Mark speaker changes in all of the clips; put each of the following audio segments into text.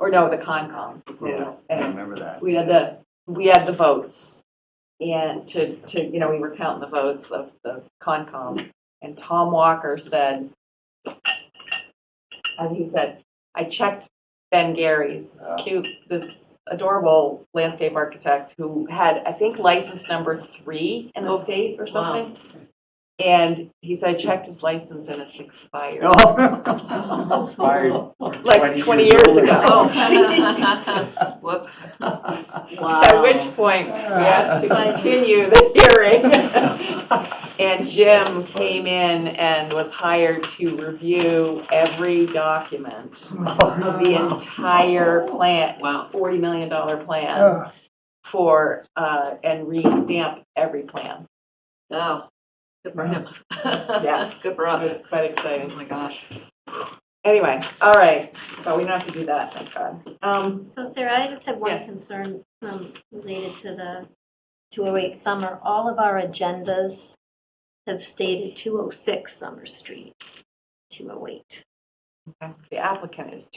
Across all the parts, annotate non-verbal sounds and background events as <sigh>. Speaker 1: or no, the Concom.
Speaker 2: Yeah. I
Speaker 1: Anyway,
Speaker 2: remember that.
Speaker 3: <laughs>
Speaker 1: We had the, we had the votes. And to, to, you know, we were counting the votes of the Concom. And Tom Walker said, and he said, I checked Ben Gary's, this cute, this adorable landscape architect who had, I think, license number three in the state or something. And he said, I checked his license and it's expired.
Speaker 4: Oh,
Speaker 5: <laughs> Oh.
Speaker 4: <laughs>
Speaker 2: Expired
Speaker 1: Like 20 years ago.
Speaker 2: Oh,
Speaker 5: Whoops.
Speaker 1: At which point, we asked to continue the hearing. And Jim came in and was hired to review every document of the entire plan,
Speaker 5: Wow.
Speaker 1: $40 million plan for, uh, and re-stamp every plan.
Speaker 5: Oh. Good for him. <laughs>
Speaker 1: Yeah.
Speaker 5: Good for
Speaker 1: It
Speaker 5: us.
Speaker 1: was quite
Speaker 5: Oh,
Speaker 1: exciting.
Speaker 5: my gosh.
Speaker 1: Anyway, all right, but we don't have to do that, thank God. Um,
Speaker 6: So Sarah, I just have
Speaker 1: Yeah.
Speaker 6: one concern um, related to the 208 Summer. All of our agendas have stated 206 Summer Street, 208.
Speaker 1: The applicant is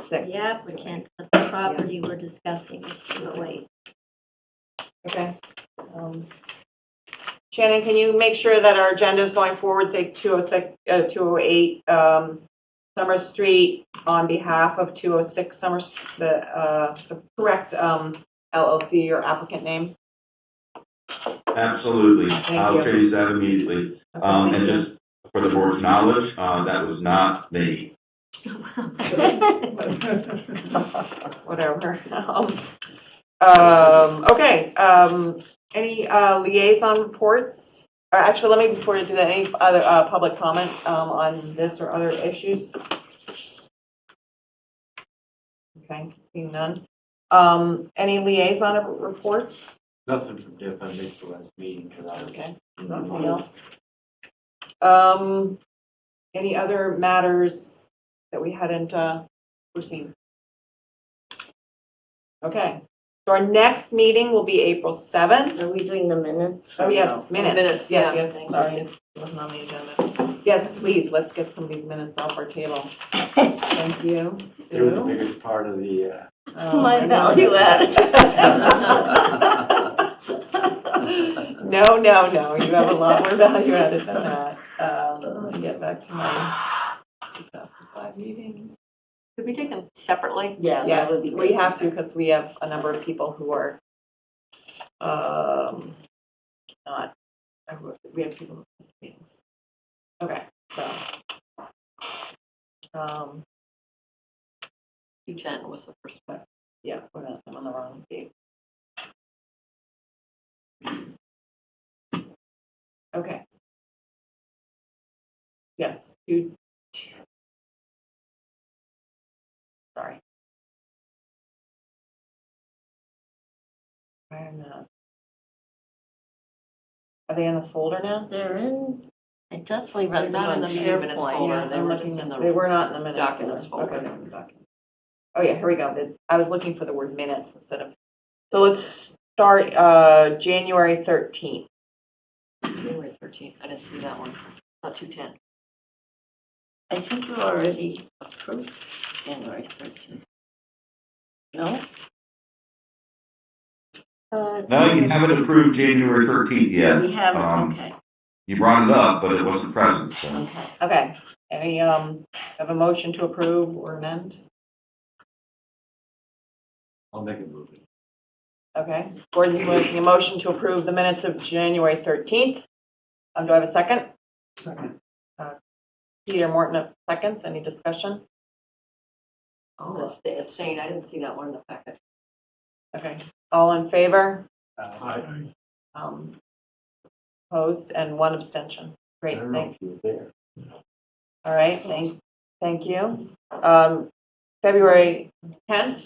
Speaker 1: 206.
Speaker 6: The applicant, but the property we're discussing oh is 208.
Speaker 1: Okay. Um, Shannon, can you make sure that our agenda is going forward, say 206, uh, 208 um, Summer Street on behalf of 206 Summer, St- the, uh, the correct um, LLC or applicant name?
Speaker 7: Absolutely. I'll
Speaker 1: you.
Speaker 7: change that immediately.
Speaker 1: Okay,
Speaker 7: Um,
Speaker 1: thank
Speaker 7: and
Speaker 1: you.
Speaker 7: just for the board's knowledge, uh, that was not me.
Speaker 1: Whatever. <laughs> Um, Okay, um, any uh, liaison reports? Uh, Actually, let me, before you do that, any other uh, public comment um, on this or other issues? Okay, seeing none. Um, Any liaison reports?
Speaker 4: Nothing from Jeff, I missed the last meeting because I was.
Speaker 1: Okay, nothing else. Um, Any other matters that we hadn't uh, foreseen? Okay, so our next meeting will be April 7th.
Speaker 6: Are we doing the minutes?
Speaker 1: Oh, yes, minutes.
Speaker 5: Minutes, yeah.
Speaker 1: Yes, yes, sorry, it wasn't on the agenda. Yes, please, let's get some of these minutes off our table. Thank you,
Speaker 4: They were the
Speaker 1: Sue.
Speaker 4: biggest part of the,
Speaker 3: <laughs>
Speaker 4: uh,
Speaker 1: Um,
Speaker 6: My
Speaker 1: and-
Speaker 6: value
Speaker 4: <laughs>
Speaker 1: <laughs> No, no, no, you have a lot more value added than that. Um, Let me get back to my 2005 meeting.
Speaker 5: Could we take them separately?
Speaker 6: Yeah,
Speaker 1: Yes, we have to because we have a number of people who are um, not, we have people who miss meetings. Okay, so. um,
Speaker 5: 210 was the first one.
Speaker 1: Yeah, we're not, I'm on the wrong page. Okay. Yes, two, two. Sorry. I am not. Are they in the folder now?
Speaker 6: <laughs> They're in, I definitely
Speaker 5: They're
Speaker 6: read them
Speaker 5: not
Speaker 6: on
Speaker 5: in the meeting minutes
Speaker 6: SharePoint.
Speaker 5: folder. They
Speaker 1: I'm
Speaker 5: were
Speaker 1: looking-
Speaker 5: just in
Speaker 1: They
Speaker 5: the,
Speaker 1: were not in the minutes.
Speaker 5: documents folder.
Speaker 1: Okay, they were in the document. Oh, yeah, here we go. The- I was looking for the word minutes instead of, so let's start, uh, January thirteenth.
Speaker 5: January 13th. I didn't see that one. Not 210.
Speaker 6: I think you already approved January 13th. No? Uh,
Speaker 7: No, you haven't approved January thirteenth yet.
Speaker 6: We haven't,
Speaker 7: Um,
Speaker 6: okay,
Speaker 7: You brought it up, but it wasn't present, so.
Speaker 6: okay.
Speaker 1: Okay, any, um, have a motion to approve or amend?
Speaker 4: I'll make a movie.
Speaker 1: Okay, Gordon's making a motion to approve the minutes of January thirteenth. Um, do I have a second?
Speaker 4: Second.
Speaker 1: Uh, Peter Morton, uh, seconds, any discussion?
Speaker 5: Oh, that's the abstain. I didn't see that one in the packet.
Speaker 1: Okay, all in favor?
Speaker 4: I
Speaker 1: Um Opposed and one abstention. Great,
Speaker 4: don't know
Speaker 1: thank,
Speaker 4: if you were there.
Speaker 1: all right, thank, thank you. Um February 10th,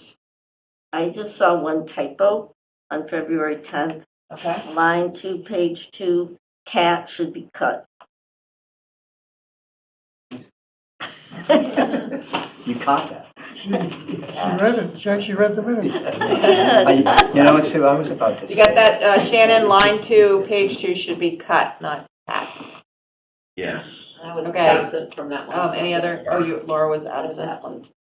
Speaker 8: I just saw one typo on February 10th.
Speaker 1: okay,
Speaker 8: Line two, page two, cat should be cut.
Speaker 4: You caught that.
Speaker 3: She she read it, she actually read the
Speaker 4: <laughs>
Speaker 3: minutes.
Speaker 8: That's
Speaker 3: <laughs>
Speaker 9: I- You know, Sue, I was about to say.
Speaker 1: you got that, uh Shannon, line two, page two should be cut, not cut.
Speaker 7: Yes.
Speaker 5: I was
Speaker 1: Okay.
Speaker 5: absent from that one.
Speaker 1: Um Any other, oh, you, Laura was
Speaker 5: I was
Speaker 1: absent.
Speaker 5: absent.